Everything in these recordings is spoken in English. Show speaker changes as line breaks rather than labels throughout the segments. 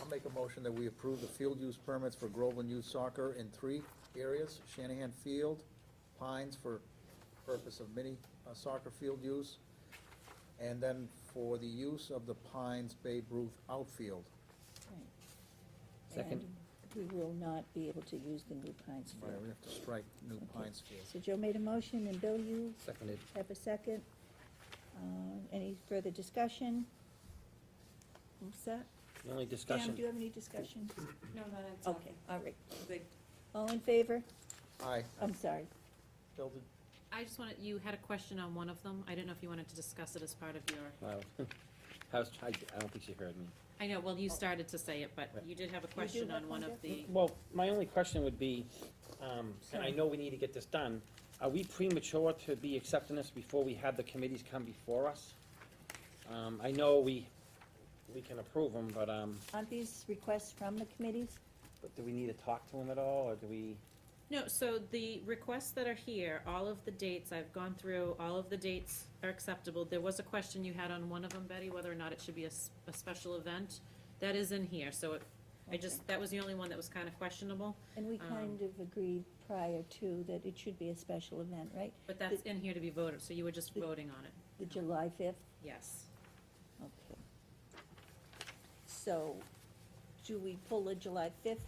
I'll make a motion that we approve the field use permits for Groveland Youth Soccer in three areas, Shanahan Field, Pines for purpose of mini uh, soccer field use, and then for the use of the Pines Babe Ruth outfield.
Right.
Second.
And We will not be able to use the New Pines
Yeah, we
field.
have to strike New
Okay.
Pines Field.
So Joe made a motion, and Bill, you
Seconded.
have a second. Uh, Any further discussion? What's that?
The only
Pam,
discussion,
do you have any discussion?
No, not on top.
Okay, all right.
They-
All in favor?
Aye.
I'm sorry.
Bill, did-
I just wanted, you had a question on one of them. I didn't know if you wanted to discuss it as part of your,
wow. I was, I, I don't think she heard me.
I know, well, you started to say it, but you did have a question
have
on one
one,
of the,
Well, my only question would be, um, and I know we need to get this done, are we premature to be accepting this before we have the committees come before us? Um, I know we, we can approve them, but, um,
Aren't these requests from the committees?
but do we need to talk to them at all, or do we?
no, so the requests that are here, all of the dates, I've gone through, all of the dates are acceptable. There was a question you had on one of them, Betty, whether or not it should be a, s- a special event. That is in here, so it, I just, that was the only one that was kind of questionable,
And we
Um,
kind of agreed prior to that it should be a special event, right?
but that's in here to be voted, so you were just voting on it,
The July fifth?
yes.
Okay. So, do we pull the July fifth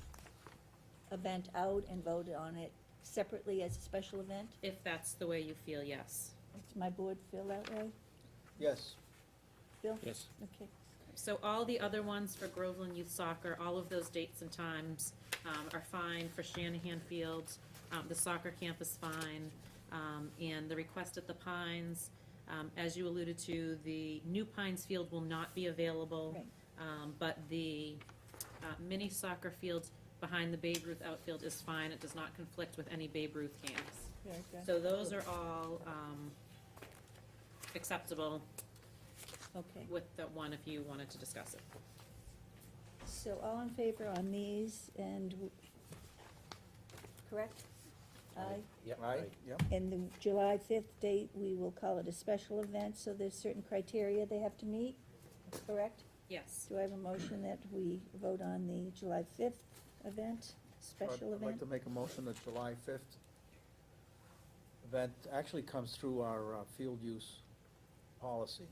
event out and vote on it separately as a special event?
If that's the way you feel, yes.
Does my board feel that way?
Yes,
Bill?
Yes.
Okay.
So all the other ones for Groveland Youth Soccer, all of those dates and times um, are fine for Shanahan Field. um, The soccer camp is fine. um, And the request at the Pines, um, as you alluded to, the new Pines Field will not be available.
Right.
Um, But the uh, mini soccer fields behind the Babe Ruth outfield is fine. It does not conflict with any Babe Ruth games.
Very good.
So those are all um, acceptable
Okay,
with the one if you wanted to discuss it.
so all in favor on these and, w- correct? Aye.
Yep,
aye,
right.
yep.
And the July fifth date, we will call it a special event, so there's certain criteria they have to meet, correct?
Yes.
Do I have a motion that we vote on the July fifth event, special
I'd like
event?
to make a motion that July fifth event actually comes through our uh, field use policy.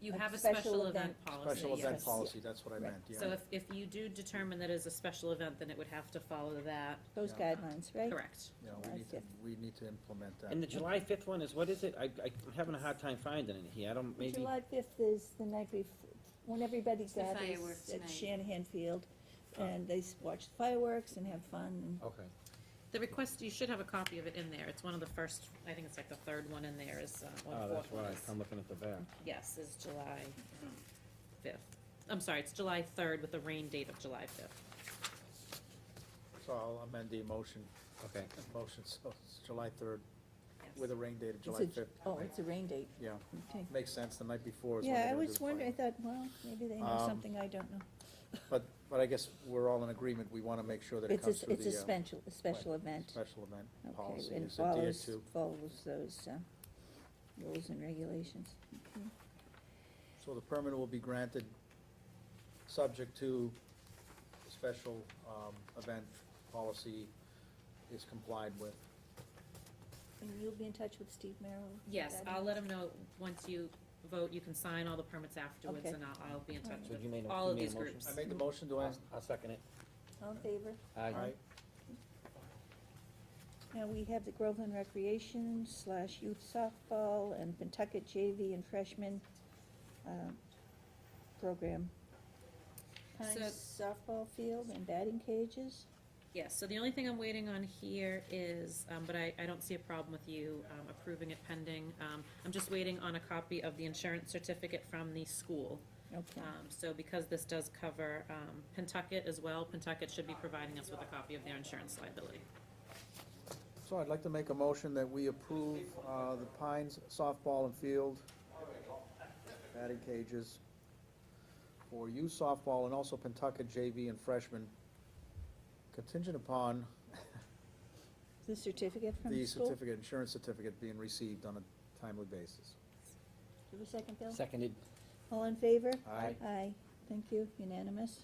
You
Like
have a
special
special event
event.
policy,
Special event
yes.
policy, that's what I
Right.
meant, yeah.
So if, if you do determine that it is a special event, then it would have to follow that.
Those
Yeah.
guidelines, right?
Correct.
Yeah, we need to, we need to implement that.
And the July fifth one is, what is it? I, I- I'm having a hard time finding it here, I don't,
The
maybe,
July fifth is the night before, when everybody
the
gathers
fireworks
at
night.
Shanahan Field, and they s- watch fireworks and have fun,
okay.
The request, you should have a copy of it in there. It's one of the first, I think it's like the third one in there is, uh, or
Oh,
the
that's
fourth one
why,
is.
I'm looking at the back.
Yes, is July fifth. I'm sorry, it's July third with the rain date of July fifth.
So I'll amend the motion,
Okay,
motion, so it's July third, with a rain date of
and.
July
It's a-
fifth.
Oh, it's a rain date,
Yeah,
okay.
makes sense, the night before is when
Yeah, I
they're gonna do
was
the
wondering, I
fight.
thought, well, maybe they know
Um,
something I don't know.
But, but I guess we're all in agreement, we wanna make sure that it
It's a,
comes
s-
through
it's
the,
a
uh,
special, a special event.
special event
Okay,
policy
and
is adhered
follows-
to.
Follows those, uh, rules and regulations.
So the permit will be granted, subject to the special, um, event policy is complied with.
And you'll be in touch with Steve Merrill?
Yes, I'll let them know, once you vote, you can sign all the permits afterwards
Okay.
and I'll, I'll be in touch
so
with
you made a,
all
you
of
made
these
a motion?
groups.
I made the motion, do I?
I'll- I'll second it.
All in favor?
Aye.
All right,
Now, we have the Groveland Recreation slash Youth Softball and Pentucket JV and Freshman, um, program. Pines softball field and batting cages.
Yes, so the only thing I'm waiting on here is, um, but I, I don't see a problem with you, um, approving it pending. Um, I'm just waiting on a copy of the insurance certificate from the school.
Okay,
Um, so because this does cover, um, Pentucket as well, Pentucket should be providing us with a copy of their insurance liability.
So I'd like to make a motion that we approve uh, the Pines softball and field batting cages for youth softball and also Pentucket JV and freshmen contingent upon
the certificate from
the
the school?
certificate, insurance certificate being received on a timely basis.
Do we second, Bill?
Seconded.
All in favor?
Aye.
Aye. Thank you, unanimous.